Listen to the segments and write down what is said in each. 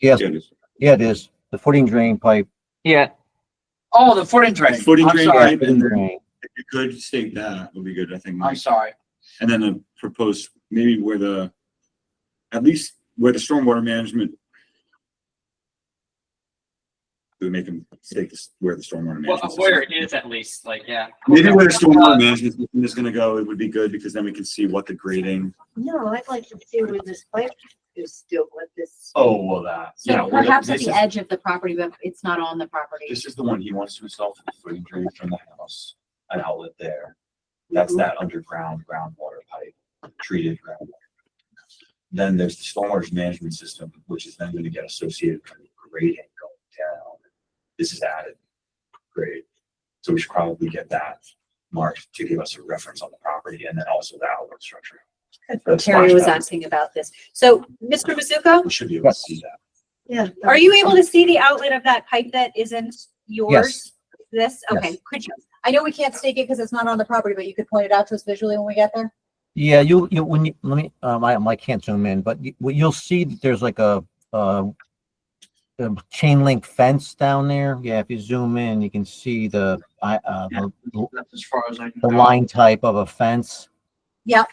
Yes, Yeah, it is. yeah, it is. The footing drain pipe. Yeah, Oh, the footing drain. Footing I'm drain sorry. pipe Footing and then drain. if you could state that would be good, I think. I'm sorry. And then the proposed, maybe where the, at least where the stormwater management. We make them state this, where the stormwater Well, management. where system- it is at least, like, yeah. Maybe where the Uh, stormwater management system is gonna go, it would be good because then we can see what the grading. No, I'd like to see where this pipe is still with this. Oh, well, that, So perhaps at the edge of the property, but it's not on the property. This is the one he wants to install for the footing drain from the house, an outlet there. That's that underground groundwater pipe, treated groundwater. Then there's the stormwater management system, which is then gonna get associated with the grading going down. This is added grade. So we should probably get that marked to give us a reference on the property and then also the outlet structure. That's Terry was flashback. asking about this. So, Mr. Mizuko, We should be able to see that. Yeah. are you able to see the outlet of that pipe that isn't yours? This, okay, could you? I know we can't stake it because it's not on the property, but you could point it out to us visually when we get there? Yeah, you, you, when you, let me, um, I, I can't zoom in, but you, well, you'll see that there's like a, uh, a chain link fence down there. Yeah, if you zoom in, you can see the, I, uh, the, That's as far as I can. the go. line type of a fence. Yep.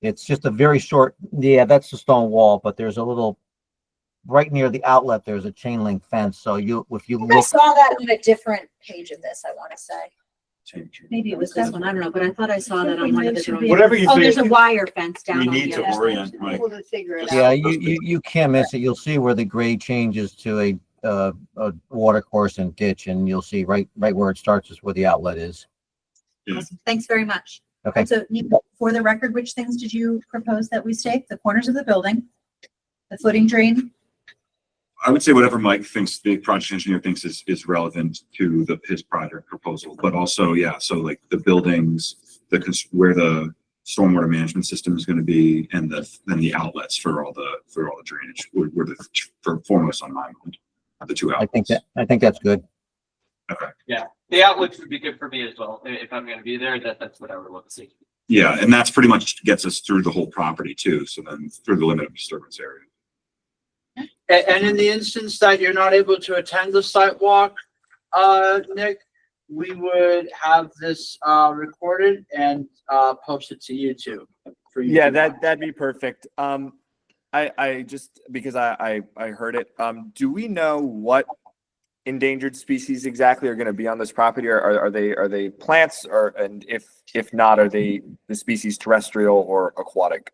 It's just a very short, yeah, that's the stone wall, but there's a little, right near the outlet, there's a chain link fence. So you, if you I look, saw that on a different page of this, I want to say. Change. Maybe it was this one, I don't know, but I thought I saw that I on think one of it the should be- drawings. Whatever you Oh, there's a think, wire fence down we on need the to other. orient, Mike. Able to figure it yeah, out. you, you, you can't miss it. You'll see where the grade changes to a, uh, a water course and ditch and you'll see right, right where it starts is where the outlet is. Yeah. Awesome. Thanks very much. Okay. So Nico, for the record, which things did you propose that we stake? The corners of the building, the footing drain? I would say whatever Mike thinks, the project engineer thinks is, is relevant to the, his project proposal, but also, yeah, so like the buildings, the, cons- where the stormwater management system is gonna be and the, then the outlets for all the, for all the drainage were, were the f- for- foremost on my mind. The two I outlets. think that, I think that's good. The outlets would be good for me as well. I- If I'm gonna be there, that, that's what I would want to see. Yeah, and that's pretty much gets us through the whole property too, so then through the limit of disturbance area. A- And in the instance that you're not able to attend the site walk, uh, Nick, we would have this, uh, recorded and, uh, posted to YouTube. for you Yeah, to- that that'd be perfect. Um, I I just because I I, I heard it. Um, do we know what endangered species exactly are going to be on this property? Or are are they are they plants or and if if not, are they the species terrestrial or aquatic?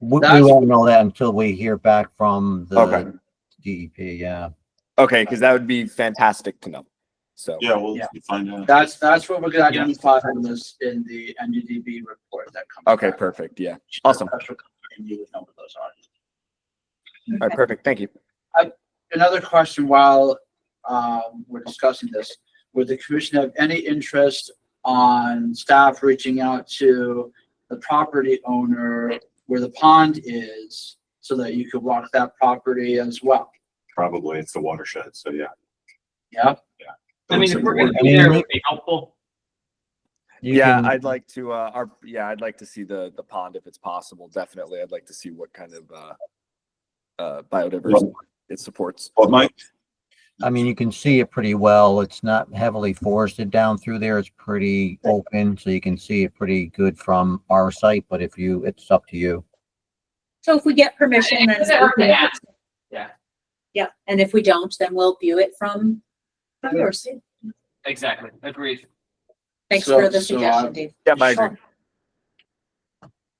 We, we That's- won't know that until we hear back from Okay. the DEP, yeah. Okay, because that would be fantastic to know. So Yeah, we'll Yeah. find out. That's, that's what we're gonna Yeah. identify in this, in the NUDB report that comes. okay, back. perfect. Yeah. awesome. And you would know what those are. All right, perfect. Thank you. another question while um, we're discussing this. Would the commission have any interest on staff reaching out to the property owner where the pond is so that you could walk that property as well? Probably it's the watershed, so yeah. Yeah, I mean, if we're gonna I be mean, there, it we- would be helpful. You yeah, can- I'd like to uh our yeah, I'd like to see the the pond if it's possible. Definitely. I'd like to see what kind of uh uh biodiversity it supports. Well, Mike, I mean, you can see it pretty well. It's not heavily forested down through there. It's pretty open, so you can see it pretty good from our site, but if you, it's up to you. So if we get permission, It then. doesn't hurt to ask. Yeah, Yeah, and if we don't, then we'll view it from, from yours. exactly. Agreed. Thanks So- for the so, uh, suggestion, Dave. Yeah, I agree.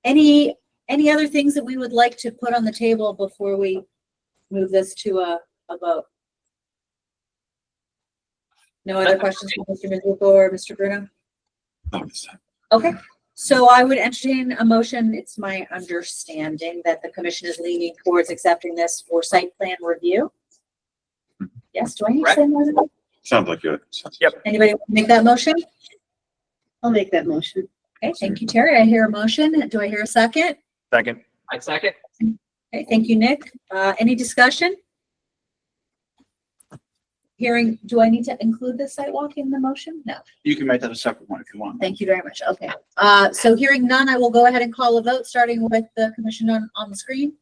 Any, any other things that we would like to put on the table before we move this to a, a vote? No other questions from Mr. Mizuko or Mr. Bruno? obviously. Okay, so I would entertain a motion. It's my understanding that the commission is leaning towards accepting this for site plan review. Yes, do I need to say more than that? sounds like you. Yep. Anybody want to make that motion? I'll make that motion. Okay, thank you, Terry. I hear a motion. Do I hear a second? Second. I second. Okay, thank you, Nick. Uh, any discussion? Hearing, do I need to include the sidewalk in the motion? No. you can make that a separate one if you want. Thank you very much. Okay. Uh, so hearing none, I will go ahead and call a vote, starting with the commission on, on the screen.